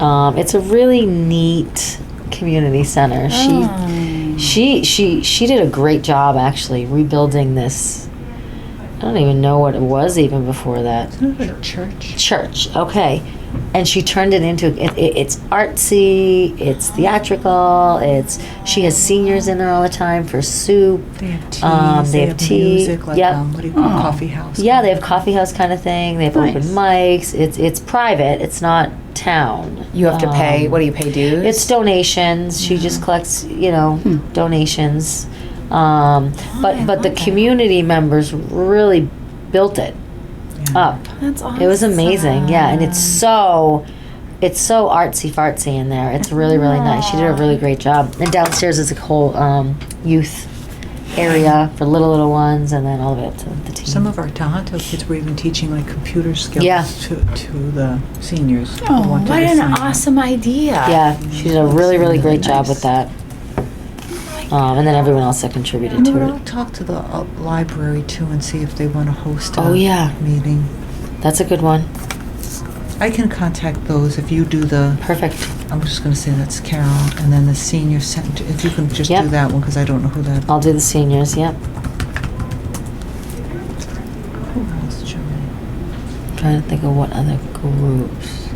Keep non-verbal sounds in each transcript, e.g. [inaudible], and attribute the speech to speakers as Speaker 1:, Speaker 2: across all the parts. Speaker 1: Um, it's a really neat community center.
Speaker 2: Oh.
Speaker 1: She, she, she, she did a great job actually rebuilding this. I don't even know what it was even before that
Speaker 2: Church.
Speaker 1: church. Okay, and she turned it into it, it, it's artsy, it's theatrical. It's she has seniors in there all the time for soup.
Speaker 2: They have teas.
Speaker 1: Um, they
Speaker 2: they,
Speaker 1: have
Speaker 2: have,
Speaker 1: tea,
Speaker 2: music. Like
Speaker 1: yep. Oh.
Speaker 2: um, what do you call it, coffee house?
Speaker 1: Yeah, they have coffee house kind of thing. They have open mics. It's it's private. It's not town.
Speaker 3: You have to pay.
Speaker 1: Um,
Speaker 3: What do you pay dues? Mm. Hmm.
Speaker 1: It's donations. She just collects, you know, donations. Um,
Speaker 3: Oh,
Speaker 1: but but the community members really built it
Speaker 2: Yeah.
Speaker 1: up.
Speaker 4: That's awesome.
Speaker 1: It was amazing. Yeah, and it's so it's so artsy fartsy in there. It's really really nice. She did a really great job. And downstairs is a whole um, youth area for little little ones, and then all of it to the teens.
Speaker 2: Some of our Tohoto kids were even teaching like computer skills
Speaker 1: Yeah.
Speaker 2: to, to the seniors. who
Speaker 4: Oh,
Speaker 2: wanted
Speaker 4: what
Speaker 2: to
Speaker 4: an
Speaker 2: sign up.
Speaker 4: awesome idea.
Speaker 1: yeah, she did a really really great job with that. Um, and then everyone else that contributed
Speaker 2: You know what,
Speaker 1: to
Speaker 2: I'll
Speaker 1: it.
Speaker 2: talk to the uh, library too and see if they want to host a
Speaker 1: Oh, yeah.
Speaker 2: meeting.
Speaker 1: That's a good one.
Speaker 2: I can contact those if you do the,
Speaker 1: Perfect.
Speaker 2: I'm just going to say that's Carol, and then the senior center, if you can just
Speaker 1: Yep.
Speaker 2: do that one, because I don't know who that,
Speaker 1: I'll do the seniors. Yep.
Speaker 2: who else, Germany?
Speaker 1: trying to think of what other groups.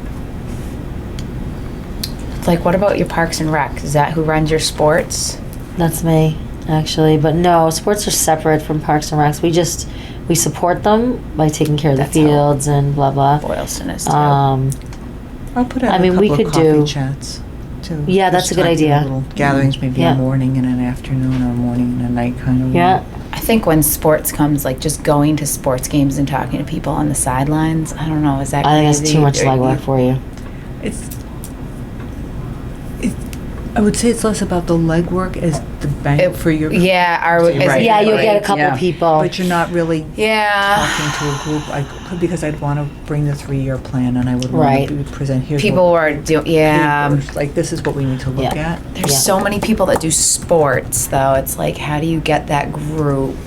Speaker 3: like, what about your Parks and Rec? Is that who runs your sports?
Speaker 1: That's me, actually. But no, sports are separate from Parks and Recs. We just we support them by taking care of
Speaker 3: That's
Speaker 1: the
Speaker 3: how-
Speaker 1: fields and blah blah.
Speaker 3: Boylston is too.
Speaker 1: Um,
Speaker 2: I'll put
Speaker 1: I
Speaker 2: out a
Speaker 1: mean, we
Speaker 2: couple of
Speaker 1: could do-
Speaker 2: coffee chats too.
Speaker 1: Yeah, that's
Speaker 2: Just
Speaker 1: a good
Speaker 2: try to do
Speaker 1: idea. Mm-hmm.
Speaker 2: little Gatherings, maybe
Speaker 1: Yeah.
Speaker 2: a morning and an afternoon, or a morning and a night kind
Speaker 3: Mm-hmm.
Speaker 2: of.
Speaker 1: yeah,
Speaker 3: I think when sports comes, like just going to sports games and talking to people on the sidelines, I don't know, is that
Speaker 1: I think that's
Speaker 3: crazy?
Speaker 1: too much
Speaker 3: Or
Speaker 1: legwork for you.
Speaker 2: It's, it, I would say it's less about the legwork as the bank
Speaker 3: It-
Speaker 2: for your.
Speaker 3: Yeah, our,
Speaker 2: Right.
Speaker 3: is-
Speaker 1: Yeah, you'll get a
Speaker 3: right,
Speaker 1: couple
Speaker 3: yeah.
Speaker 1: people. Ah.
Speaker 2: But you're not really
Speaker 3: Yeah.
Speaker 2: talking to a group, I could, because I'd want to bring the three-year plan and I would
Speaker 1: Right. um,
Speaker 2: want to present, here's
Speaker 3: People
Speaker 2: what.
Speaker 3: are doing, yeah.
Speaker 2: papers, Like, this is what we need to look
Speaker 1: Yeah.
Speaker 2: at.
Speaker 3: There's
Speaker 1: Yeah.
Speaker 3: so many people that do sports, though. It's like, how do you get that group?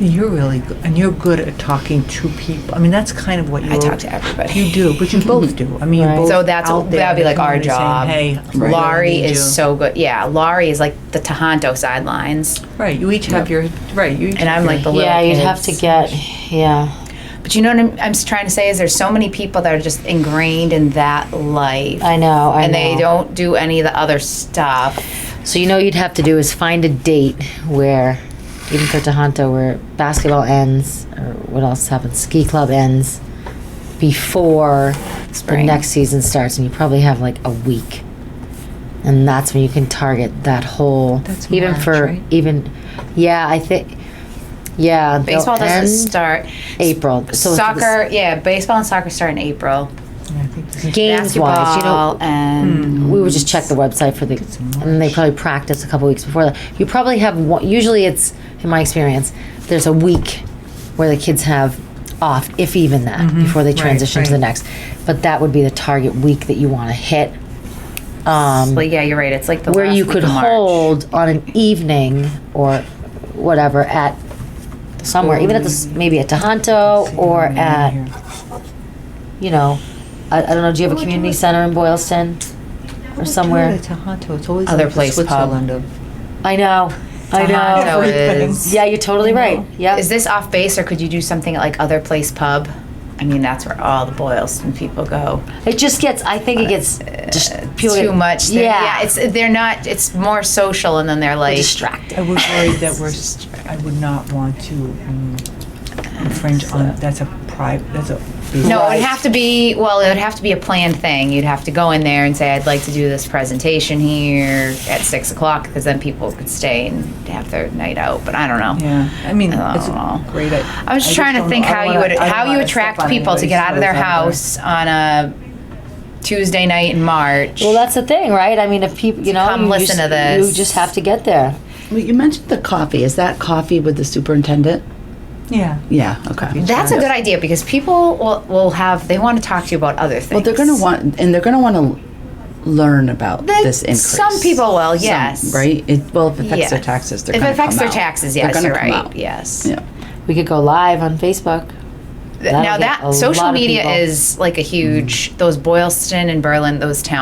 Speaker 2: You're really, good, and you're good at talking to people, I mean, that's kind of what you.
Speaker 3: I talk to everybody.
Speaker 2: You do, but you both do, I mean, you
Speaker 1: Right.
Speaker 2: both
Speaker 3: So that's
Speaker 2: out there
Speaker 3: that'd be
Speaker 2: in the
Speaker 3: like our
Speaker 2: community saying,
Speaker 3: job.
Speaker 2: Hey. I really
Speaker 3: Laurie
Speaker 2: need
Speaker 3: is
Speaker 2: you."
Speaker 3: so good. Yeah, Laurie is like the Tahanto sidelines,
Speaker 2: Right, you each have your, right, you each.
Speaker 3: and
Speaker 2: have
Speaker 3: I'm
Speaker 2: your-
Speaker 3: like the little.
Speaker 1: Yeah, you'd have to
Speaker 3: kids.
Speaker 1: get yeah.
Speaker 3: But you know what I'm, I'm just trying to say is there's so many people that are just ingrained in that life,
Speaker 1: I know. I
Speaker 3: and
Speaker 1: know.
Speaker 3: they don't do any of the other stuff.
Speaker 1: So you know, what you'd have to do is find a date where, even for Tohonto, where basketball ends or what else happens, ski club ends before
Speaker 3: Spring.
Speaker 1: the next season starts, and you probably have like a week, and that's when you can target that whole.
Speaker 2: That's
Speaker 1: even
Speaker 2: March,
Speaker 1: for
Speaker 2: right?
Speaker 1: even, yeah, I think, yeah, they'll
Speaker 3: Baseball doesn't
Speaker 1: end
Speaker 3: start.
Speaker 1: April. So it's the
Speaker 3: soccer, yeah, baseball and soccer start in April.
Speaker 2: Yeah, I think this is-
Speaker 1: games wise, you Hmm. know,
Speaker 3: Basketball and
Speaker 1: we would just check the website for the, and they probably practice a couple weeks before that. You probably have one, usually it's, in my experience, there's a week where the kids have off, if even that,
Speaker 3: Mm-hmm.
Speaker 1: before they
Speaker 2: Right,
Speaker 1: transition to the
Speaker 2: right.
Speaker 1: next. But that would be the target week that you want to hit. Um,
Speaker 3: Well, yeah, you're right. It's like the
Speaker 1: where
Speaker 3: last
Speaker 1: you
Speaker 3: week
Speaker 1: could
Speaker 3: of March.
Speaker 1: hold on an evening or whatever at somewhere, even at this, maybe at Tohonto or
Speaker 2: Yeah, here.
Speaker 1: at, you know, I, I don't know, do you have a community center in Boylston? Or somewhere?
Speaker 2: Toyota, Tohoto, it's always
Speaker 3: Other
Speaker 2: like the
Speaker 3: place pub.
Speaker 2: Switzerland of.
Speaker 1: I know. I know.
Speaker 3: Tohonto
Speaker 2: Everything.
Speaker 3: is.
Speaker 1: Yeah, you're totally right. Yeah.
Speaker 3: Mm-hmm. Is this off base, or could you do something at like other place pub? I mean, that's where all the Boylston people go.
Speaker 1: It just gets. I think it gets just people
Speaker 3: Uh, too
Speaker 1: get-
Speaker 3: much. They're-
Speaker 1: Yeah.
Speaker 3: yeah. It's they're not. It's more social, and then they're like
Speaker 1: distracted.
Speaker 2: I was worried
Speaker 3: [laughs]
Speaker 2: that we're, s- I would not want to mm, infringe on, that's a private, that's a.
Speaker 3: No, it would have to be. Well, it would have to be a planned thing. You'd have to go in there and say, "I'd like to do this presentation here at six o'clock," because then people could stay and have their night out. But I don't know.
Speaker 2: Yeah, I mean, it's
Speaker 3: Oh.
Speaker 2: a great. I
Speaker 3: I was just trying to
Speaker 2: don't
Speaker 3: think
Speaker 2: know. I
Speaker 3: how
Speaker 2: don't
Speaker 3: you
Speaker 2: wanna-
Speaker 3: would
Speaker 2: I don't
Speaker 3: how you
Speaker 2: wanna step
Speaker 3: attract
Speaker 2: on
Speaker 3: people to
Speaker 2: anybody's
Speaker 3: get out of their
Speaker 2: toes
Speaker 3: house on a Tuesday night in March.
Speaker 1: Well, that's the thing, right? I mean, if people, you know,
Speaker 3: Come
Speaker 1: you
Speaker 3: listen
Speaker 1: just,
Speaker 3: to this.
Speaker 1: You just have to get there.
Speaker 5: Well, you mentioned the coffee. Is that coffee with the superintendent?
Speaker 2: Yeah.
Speaker 5: Yeah, okay.
Speaker 3: That's a good idea because people will, will have they want to talk to you about other things.
Speaker 5: Well, they're going to want, and they're going to want to learn about
Speaker 3: They-
Speaker 5: this increase.
Speaker 3: Some people will,
Speaker 5: Some,
Speaker 3: yes.
Speaker 5: right? It, well, if it affects their
Speaker 3: Yes.
Speaker 5: taxes, they're
Speaker 3: If
Speaker 5: going
Speaker 3: it
Speaker 5: to
Speaker 3: affects their taxes, yes,
Speaker 5: they're
Speaker 3: you're
Speaker 5: gonna come
Speaker 3: right.
Speaker 5: out.
Speaker 3: Yes.
Speaker 5: Yeah.
Speaker 1: We could go live on Facebook. That'll
Speaker 3: now
Speaker 1: get a
Speaker 3: that social
Speaker 1: lot of
Speaker 3: media
Speaker 1: people. Mm.
Speaker 3: is like a huge those Boylston and Berlin, those towns